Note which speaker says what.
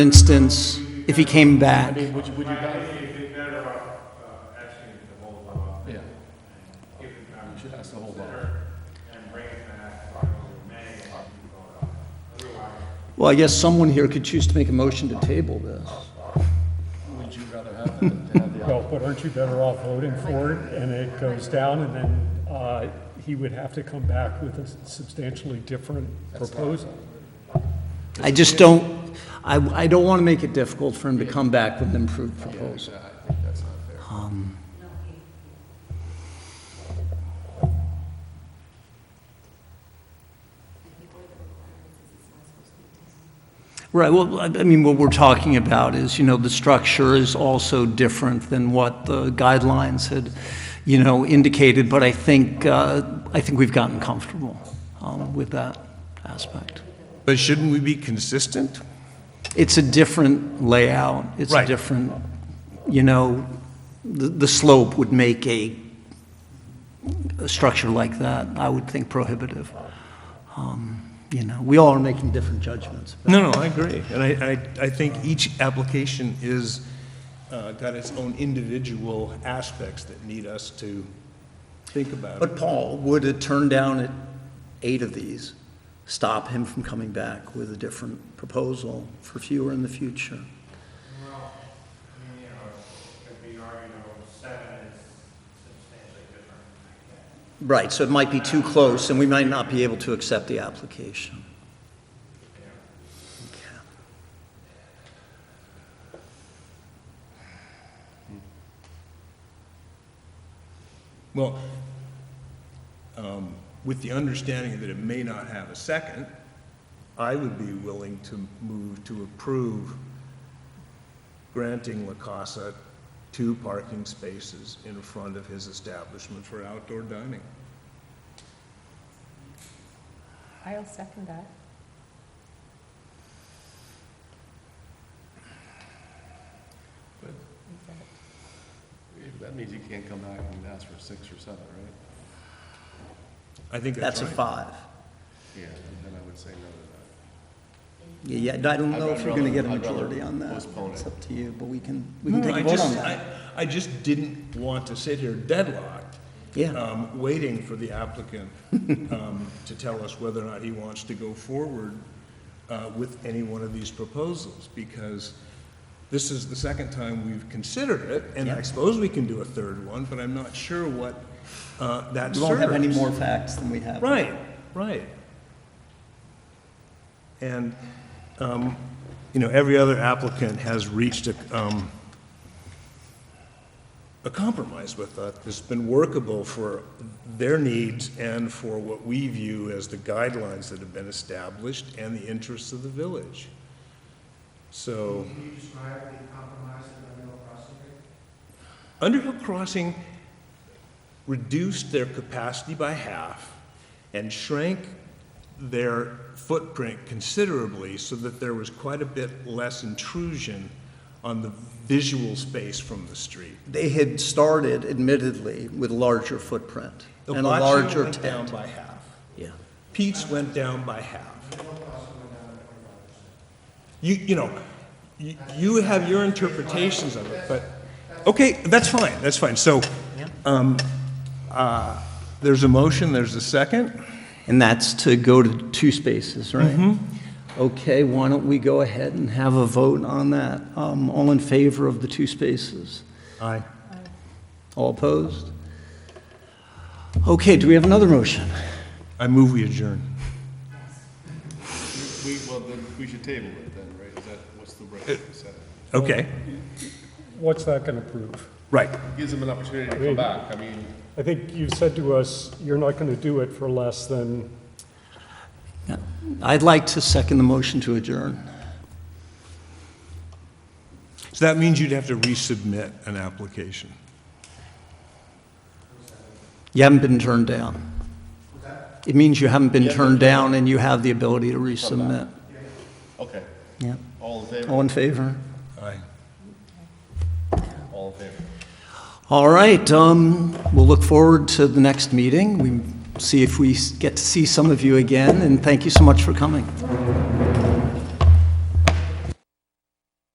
Speaker 1: instance, if he came back.
Speaker 2: Would you, would you guys? Yeah. You should ask to hold off.
Speaker 1: Well, I guess someone here could choose to make a motion to table this.
Speaker 2: Would you rather have than to have the
Speaker 3: Well, but aren't you better off voting for it, and it goes down, and then uh, he would have to come back with a substantially different proposal?
Speaker 1: I just don't, I, I don't want to make it difficult for him to come back with an improved proposal. Um, Right, well, I I mean, what we're talking about is, you know, the structure is also different than what the guidelines had, you know, indicated, but I think, uh, I think we've gotten comfortable um, with that aspect.
Speaker 4: But shouldn't we be consistent?
Speaker 1: It's a different layout, it's a
Speaker 4: Right.
Speaker 1: different, you know, the, the slope would make a, a structure like that, I would think prohibitive. Um, You know, we all are making different judgments.
Speaker 4: No, no, I agree. And I, I, I think each application is, uh, got its own individual aspects that need us to think about.
Speaker 1: But Paul, would a turn down at eight of these stop him from coming back with a different proposal for fewer in the future?
Speaker 5: you know, could be argued, you know, seven is substantially different.
Speaker 1: Right, so it might be too close, and we might not be able to accept the application.
Speaker 4: Well, um, with the understanding that it may not have a second, I would be willing to move to approve granting La Casa two parking spaces in front of his establishment for outdoor dining.
Speaker 6: I'll second that.
Speaker 2: That means you can't come back and ask for six or seven, right?
Speaker 4: I think that's
Speaker 1: That's a
Speaker 4: right.
Speaker 1: five.
Speaker 2: Yeah, then I would say no to
Speaker 1: Yeah, yeah, I don't
Speaker 2: I'd
Speaker 1: know if
Speaker 2: rather-
Speaker 1: we're going to get a
Speaker 2: I'd rather
Speaker 1: majority on that.
Speaker 2: postpone
Speaker 1: It's
Speaker 2: it.
Speaker 1: up to you, but we can, we can
Speaker 4: No,
Speaker 1: take
Speaker 4: Hmm, I
Speaker 1: a vote on
Speaker 4: just,
Speaker 1: that.
Speaker 4: I, I just didn't want to sit here deadlocked,
Speaker 1: Yeah,
Speaker 4: um, waiting for the applicant, um, to tell us whether or not he wants to go forward, uh, with any one of these proposals, because this is the second time we've considered it, and I
Speaker 1: Yeah.
Speaker 4: suppose we can do a third one, but I'm not sure what, uh, that
Speaker 1: we
Speaker 4: serves.
Speaker 1: won't have any more facts than we have.
Speaker 4: Right, right. And, um, you know, every other applicant has reached a, um, a compromise with that, that's been workable for their needs and for what we view as the guidelines that have been established and the interests of the village. So.
Speaker 5: Can you describe the compromise in the middle crossing?
Speaker 4: Underhill Crossing reduced their capacity by half and shrank their footprint considerably so that there was quite a bit less intrusion on the visual space from the street.
Speaker 1: They had started admittedly with larger footprint
Speaker 4: The
Speaker 1: and a
Speaker 4: Boccia
Speaker 1: larger
Speaker 4: went down
Speaker 1: tent.
Speaker 4: by half.
Speaker 1: Yeah.
Speaker 4: Pete's went down by half. You, you know, you, you have your interpretations of it, but, okay, that's fine, that's fine. So, um, uh, there's a motion, there's a second.
Speaker 1: And that's to go to two spaces, right?
Speaker 4: Mm-hmm.
Speaker 1: Okay, why don't we go ahead and have a vote on that? Um, All in favor of the two spaces?
Speaker 4: Aye.
Speaker 1: All opposed? Okay, do we have another motion?
Speaker 4: I move we adjourn.
Speaker 2: that. We, well, then, we should table it then, right? Is that, what's the right way to set it?
Speaker 4: Okay,
Speaker 3: What's that going to prove?
Speaker 4: right.
Speaker 2: Gives them an opportunity to come back, I mean,
Speaker 3: I think you said to us, you're not going to do it for less than,
Speaker 1: Yeah. I'd like to second the motion to adjourn.
Speaker 4: So that means you'd have to resubmit an application.
Speaker 1: You haven't been turned down. It means you haven't been turned down and you have the ability to resubmit.
Speaker 2: okay,
Speaker 1: Yeah.
Speaker 2: all in favor,
Speaker 1: All in favor?
Speaker 4: Aye.
Speaker 2: all in favor.
Speaker 1: All right, um, we'll look forward to the next meeting. We see if we s- get to see some of you again, and thank you so much for coming.